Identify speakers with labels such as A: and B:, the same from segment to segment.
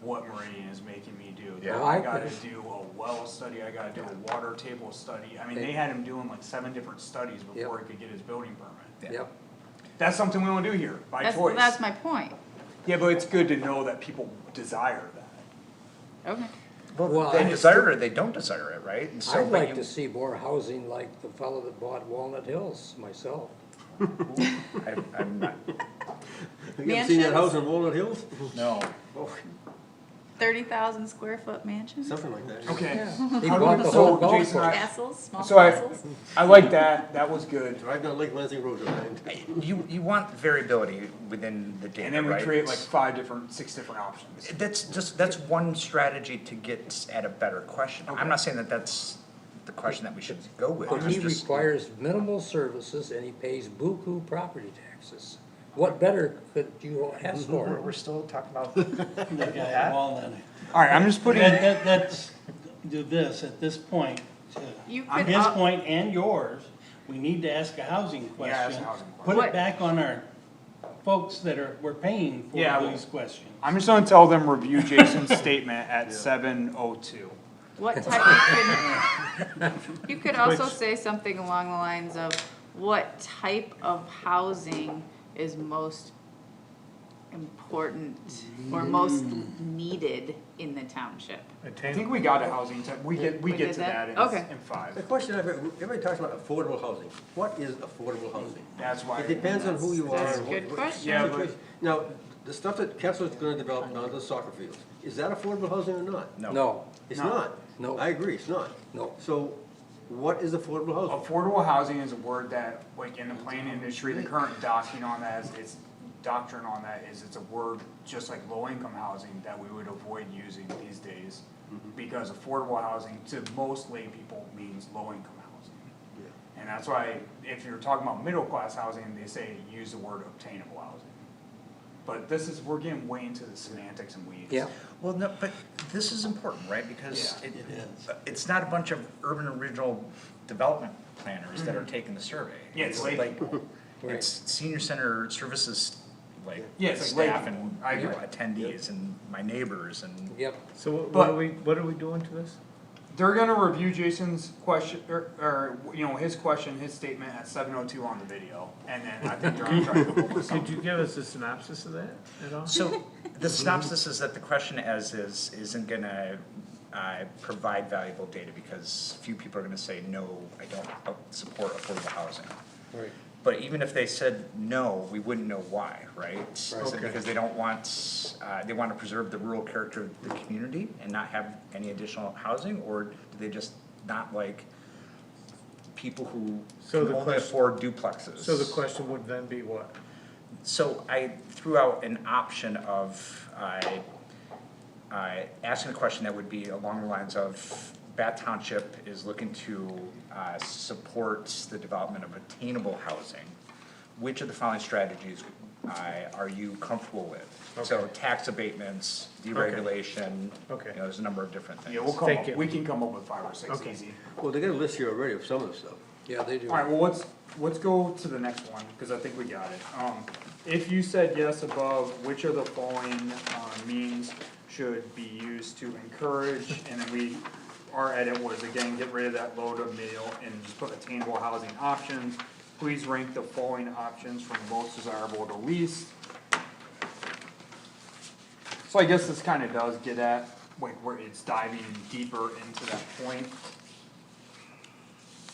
A: what Meridian is making me do.
B: Yeah.
A: I
C: I-
A: gotta do a well study, I gotta do a water table study, I mean, they had him doing like seven different studies before he could get his building permit.
C: Yep,
A: That's something we don't do here, by
D: That's,
A: choice.
D: that's my point.
A: Yeah, but it's good to know that people desire that.
D: Okay.
C: Well,
B: Well,
C: I
B: they
C: just-
B: desire it, or they don't desire it, right? And so,
C: I'd
B: but
C: like
B: you-
C: to see more housing like the fellow that bought Walnut Hills myself.
B: I, I'm not,
E: You ever seen that
D: Mansions?
E: house in Walnut Hills?
B: no,
D: Thirty thousand square foot mansion,
E: Something like that.
A: Okay.
C: He
A: How do
C: bought
A: we-
C: the
A: so,
C: whole golf
A: Jason,
C: course.
A: I-
D: castles, small
A: So I,
D: castles.
A: I like that, that was good,
E: Right down Lake Lansing Road, right?
B: you, you want variability within the
A: and
B: data,
A: then we
B: right?
A: create like five different, six different options.
B: That's just, that's one strategy to get at a better question. I'm not saying that that's the question that we should go with.
C: But he
B: It's just-
C: requires minimal services and he pays buku property taxes. What better could you ask
B: We're,
C: for?
B: we're still talking about,
F: That guy at Walnut.
A: Alright, I'm just putting.
F: That, that, that's, do this at this point, to
D: You could
F: his
D: up-
F: point and yours, we need to ask a housing
A: Yeah, ask a
F: question.
A: housing
F: Put
D: question.
F: it back on our folks that are, we're paying
A: Yeah,
F: for
A: well-
F: these questions.
A: I'm just gonna tell them review Jason's statement at seven oh two.
D: What type of, could- you could also say something along the lines of, what type of housing is most important or most
A: Mm.
D: needed in the township?
A: I think we got a housing type, we get, we
D: We
A: get
D: did
A: to that
D: that?
A: in,
D: Okay.
A: in
E: The
A: five.
E: question I've, ever- everybody talks about affordable housing. What is affordable housing?
A: That's why.
E: It depends on who you are.
D: That's a
E: and
D: good
E: what- what
D: question.
A: Yeah, but-
E: situation. Now, the stuff that Kessler's gonna develop down to the soccer fields, is that affordable housing or not?
B: no.
C: No,
E: It's
A: No.
E: not.
C: No.
E: I agree, it's not.
C: No.
E: So what is affordable housing?
A: Affordable housing is a word that, like, in the planning industry, the current doctrine on that is, it's doctrine on that is it's a word, just like low-income housing, that we would avoid using these days. Because affordable housing to most lay people means low-income housing. And that's why, if you're talking about middle-class housing, they say use the word obtainable housing. But this is, we're getting way into the semantics and weeds.
C: yeah,
B: Well, no, but this is important, right? Because
A: Yeah.
B: it,
E: It is.
B: it's not a bunch of urban original development planners that are taking the survey.
A: Mm-hmm. Yeah, it's lay people.
B: It's senior center services, like,
A: Yeah, it's like lay
B: staff
A: people.
B: and
A: I
B: you know,
A: agree.
B: attendees and my neighbors and.
C: yep.
G: So what, what
A: But-
G: are we, what are we doing to this?
A: They're gonna review Jason's question, or, or, you know, his question, his statement at seven oh two on the video, and then I think they're gonna try to come up with
G: Could
A: something.
G: you give us a synopsis of that at all?
B: So the synopsis is that the question as is isn't gonna uh, provide valuable data because few people are gonna say, no, I don't uh, support affordable housing.
E: Right.
B: But even if they said no, we wouldn't know why, right? Is it
E: Okay.
B: Because they don't want, uh, they want to preserve the rural character of the community and not have any additional housing? Or do they just not like people who
G: So
B: can
G: the
B: only
G: question-
B: afford duplexes?
G: So the question would then be what?
B: So I threw out an option of, uh, uh, asking a question that would be along the lines of, Bath Township is looking to, uh, support the development of attainable housing. Which of the following strategies, uh, are you comfortable with? So
G: Okay.
B: tax abatements, deregulation, you know,
G: Okay.
B: there's a number of different things.
A: Yeah, we'll come
G: Thank
A: up,
G: you.
A: we can come up with five or six
G: Okay.
A: easy.
E: Well, they got a list here already of some of the stuff.
C: Yeah, they do.
A: Alright, well, let's, let's go to the next one, cause I think we got it. Um, if you said yes above, which of the following, uh, means should be used to encourage? And then we, our edit was again, get rid of that low to middle and just put attainable housing options. Please rank the following options from most desirable to least. So I guess this kinda does get at, like, where it's diving deeper into that point.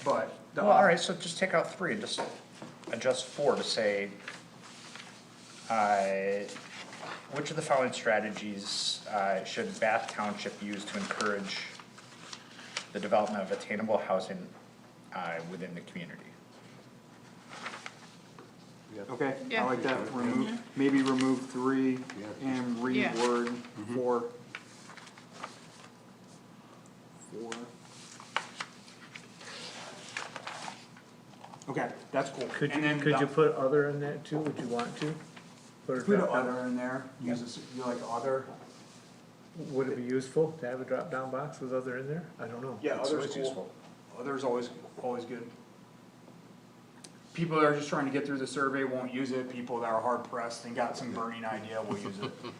A: But. the
B: Well, all right, so just take out three and just adjust four to say, uh, which of the following strategies uh, should Bath Township use to encourage the development of attainable housing uh, within the community?
A: Okay, I
D: Yeah.
A: like that, remove, maybe remove three
E: Yeah.
A: and
D: Yeah.
A: reword four. Four. Okay, that's cool.
G: Could
A: And
G: you,
A: then
G: could
A: the-
G: you put other in that too? Would you want to? Put a
A: Put a
G: drop down-
A: other in there, use this, you like other?
G: Would it be useful to have a drop down box with other in there? I don't know.
A: Yeah,
B: It's
A: other's
B: always
A: cool.
B: useful.
A: Other's always, always good. People that are just trying to get through the survey won't use it, people that are hard pressed and got some burning idea will use it.